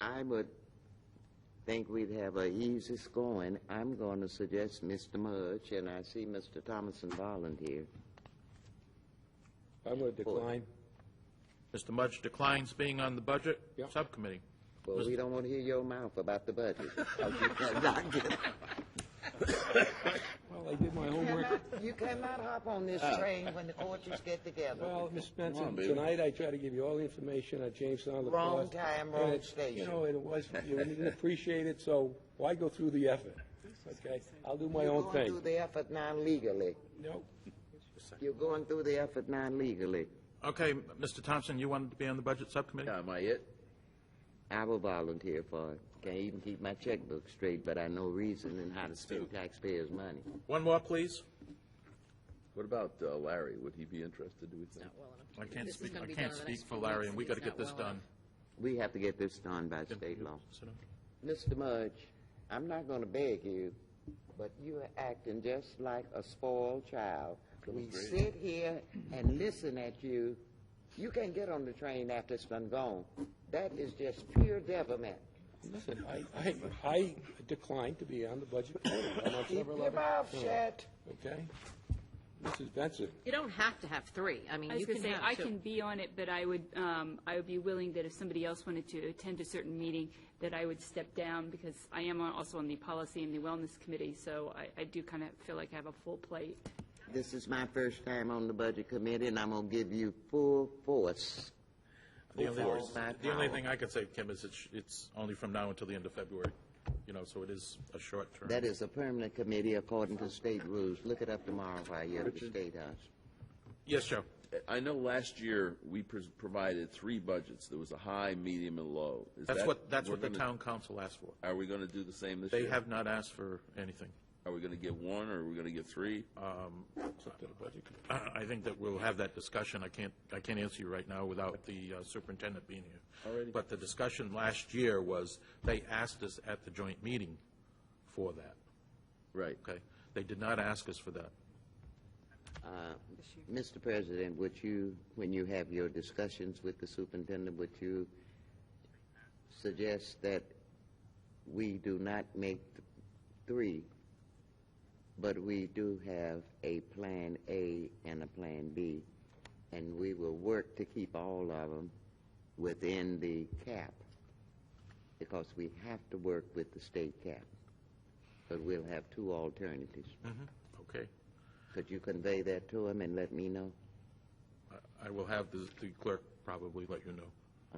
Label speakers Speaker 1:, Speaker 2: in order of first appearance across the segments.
Speaker 1: I would think we'd have a easy scoring. I'm going to suggest Mr. Mudge, and I see Mr. Thomason volunteer.
Speaker 2: I'm going to decline.
Speaker 3: Mr. Mudge declines being on the budget
Speaker 2: Yep.
Speaker 3: subcommittee.
Speaker 1: Well, we don't want to hear your mouth about the budget. You cannot get-
Speaker 2: Well, I did my homework.
Speaker 1: You cannot hop on this
Speaker 2: Uh.
Speaker 1: train when the coaches get together.
Speaker 2: Well, Ms. Benson,
Speaker 4: baby.
Speaker 2: tonight I tried to give you all the information on Jamestown lacrosse.
Speaker 1: Wrong time, wrong
Speaker 2: and it- You
Speaker 1: station.
Speaker 2: know, and it was, you didn't appreciate it, so why go through the effort? Okay, I'll do my
Speaker 1: You're
Speaker 2: own
Speaker 1: going through
Speaker 2: thing.
Speaker 1: the effort non-legally.
Speaker 2: No,
Speaker 1: You're going through the effort non-legally.
Speaker 3: Okay, Mr. Thompson, you wanted to be on the budget subcommittee?
Speaker 4: Yeah, am I it?
Speaker 1: I will volunteer for it. Can't even keep my checkbook straight, but I know reason and how to spend taxpayers' money.
Speaker 3: One more, please.
Speaker 4: What about uh, Larry? Would he be interested, do we think?
Speaker 3: I can't
Speaker 5: This is
Speaker 3: speak,
Speaker 5: gonna
Speaker 3: I
Speaker 5: be
Speaker 3: can't
Speaker 5: done in the next
Speaker 3: speak for
Speaker 5: few
Speaker 3: Larry,
Speaker 5: weeks,
Speaker 3: and we
Speaker 5: and
Speaker 3: got to
Speaker 5: he's
Speaker 3: get
Speaker 5: not
Speaker 3: this
Speaker 5: well
Speaker 3: done.
Speaker 1: We have to get this done by state law.
Speaker 3: So,
Speaker 1: Mr. Mudge, I'm not going to beg you, but you are acting just like a spoiled child. We sit here and listen at you. You can't get on the train after it's done gone. That is just pure devilment.
Speaker 2: listen, I, I, I declined to be on the budget committee. I'm on
Speaker 1: Keep
Speaker 2: several
Speaker 1: your
Speaker 2: other-
Speaker 1: mouth shut.
Speaker 2: Okay? Mrs. Benson,
Speaker 5: You don't have to have three. I mean,
Speaker 6: I was
Speaker 5: you
Speaker 6: going
Speaker 5: can
Speaker 6: to say,
Speaker 5: have
Speaker 6: I
Speaker 5: two.
Speaker 6: can be on it, but I would, um, I would be willing that if somebody else wanted to attend a certain meeting, that I would step down because I am on- also on the policy and the wellness committee, so I, I do kind of feel like I have a full plate.
Speaker 1: This is my first time on the budget committee, and I'm going to give you full force.
Speaker 3: The only,
Speaker 1: force.
Speaker 3: the only thing I can say, Kim, is it's, it's only from now until the end of February, you know, so it is a short term.
Speaker 1: That is a permanent committee according to state rules. Look it up tomorrow while you're at the State House.
Speaker 3: Yes, Joe.
Speaker 4: I know last year, we pres- provided three budgets. There was a high, medium, and low. Is
Speaker 3: That's
Speaker 4: that-
Speaker 3: what, that's
Speaker 4: we're
Speaker 3: what the
Speaker 4: gonna-
Speaker 3: town council asked for.
Speaker 4: Are we going to do the same this year?
Speaker 3: They have not asked for anything.
Speaker 4: Are we going to give one, or are we going to give three?
Speaker 3: I think that we'll have that discussion. I can't, I can't answer you right now without the uh, superintendent being here. But the discussion last year was, they asked us at the joint meeting for that,
Speaker 4: Right.
Speaker 3: okay? They did not ask us for that.
Speaker 1: Uh, Mr. President, would you, when you have your discussions with the superintendent, would you suggest that we do not make th- three, but we do have a Plan A and a Plan B, and we will work to keep all of them within the cap, because we have to work with the state cap, but we'll have two alternatives.
Speaker 3: Okay?
Speaker 1: Could you convey that to him and let me know?
Speaker 3: I- I will have the the clerk probably let you know,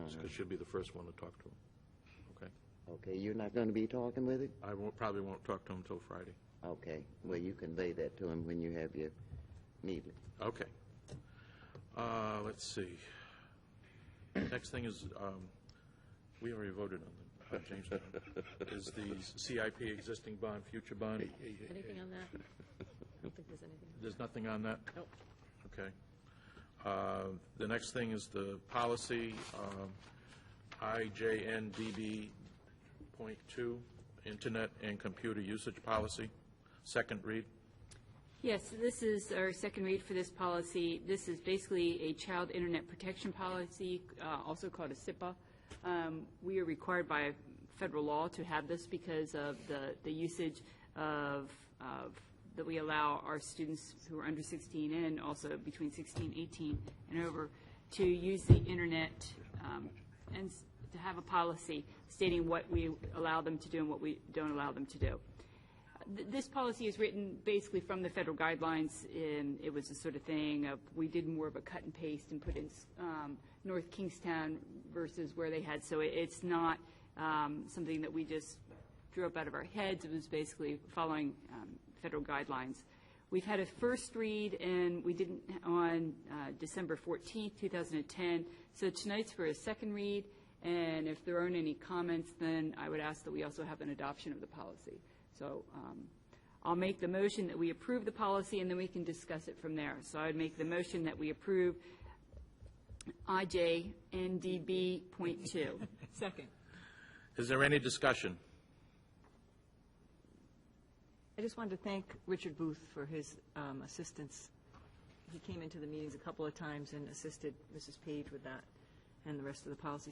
Speaker 3: because she'll be the first one to talk to him, okay?
Speaker 1: Okay, you're not going to be talking with it?
Speaker 3: I won't, probably won't talk to him until Friday.
Speaker 1: Okay, well, you convey that to him when you have your meeting.
Speaker 3: Okay. Uh, Let's see. Next thing is, um, we already voted on the, on Jamestown, is the CIP existing bond, future bond.
Speaker 5: Anything on that? I don't think there's anything.
Speaker 3: There's nothing on that?
Speaker 5: Nope.
Speaker 3: Okay. Uh, The next thing is the policy, um, IJNDB.2, Internet and Computer Usage Policy, second read.
Speaker 6: Yes, this is our second read for this policy. This is basically a child internet protection policy, uh, also called a SIPA. Um, We are required by federal law to have this because of the, the usage of, of, that we allow our students who are under 16 and also between 16, 18 and over to use the internet um, and s- to have a policy stating what we allow them to do and what we don't allow them to do. Th- This policy is written basically from the federal guidelines, and it was the sort of thing of, we did more of a cut and paste and put in um, North Kingstown versus where they had, so it- it's not um, something that we just drew up out of our heads, it was basically following um, federal guidelines. We've had a first read, and we didn't, on uh, December 14th, 2010, so tonight's for a second read, and if there aren't any comments, then I would ask that we also have an adoption of the policy. So um, I'll make the motion that we approve the policy, and then we can discuss it from there. So I would make the motion that we approve IJNDB.2.
Speaker 5: Second.
Speaker 3: Is there any discussion?
Speaker 5: I just wanted to thank Richard Booth for his um, assistance. He came into the meetings a couple of times and assisted Mrs. Page with that and the rest of the policy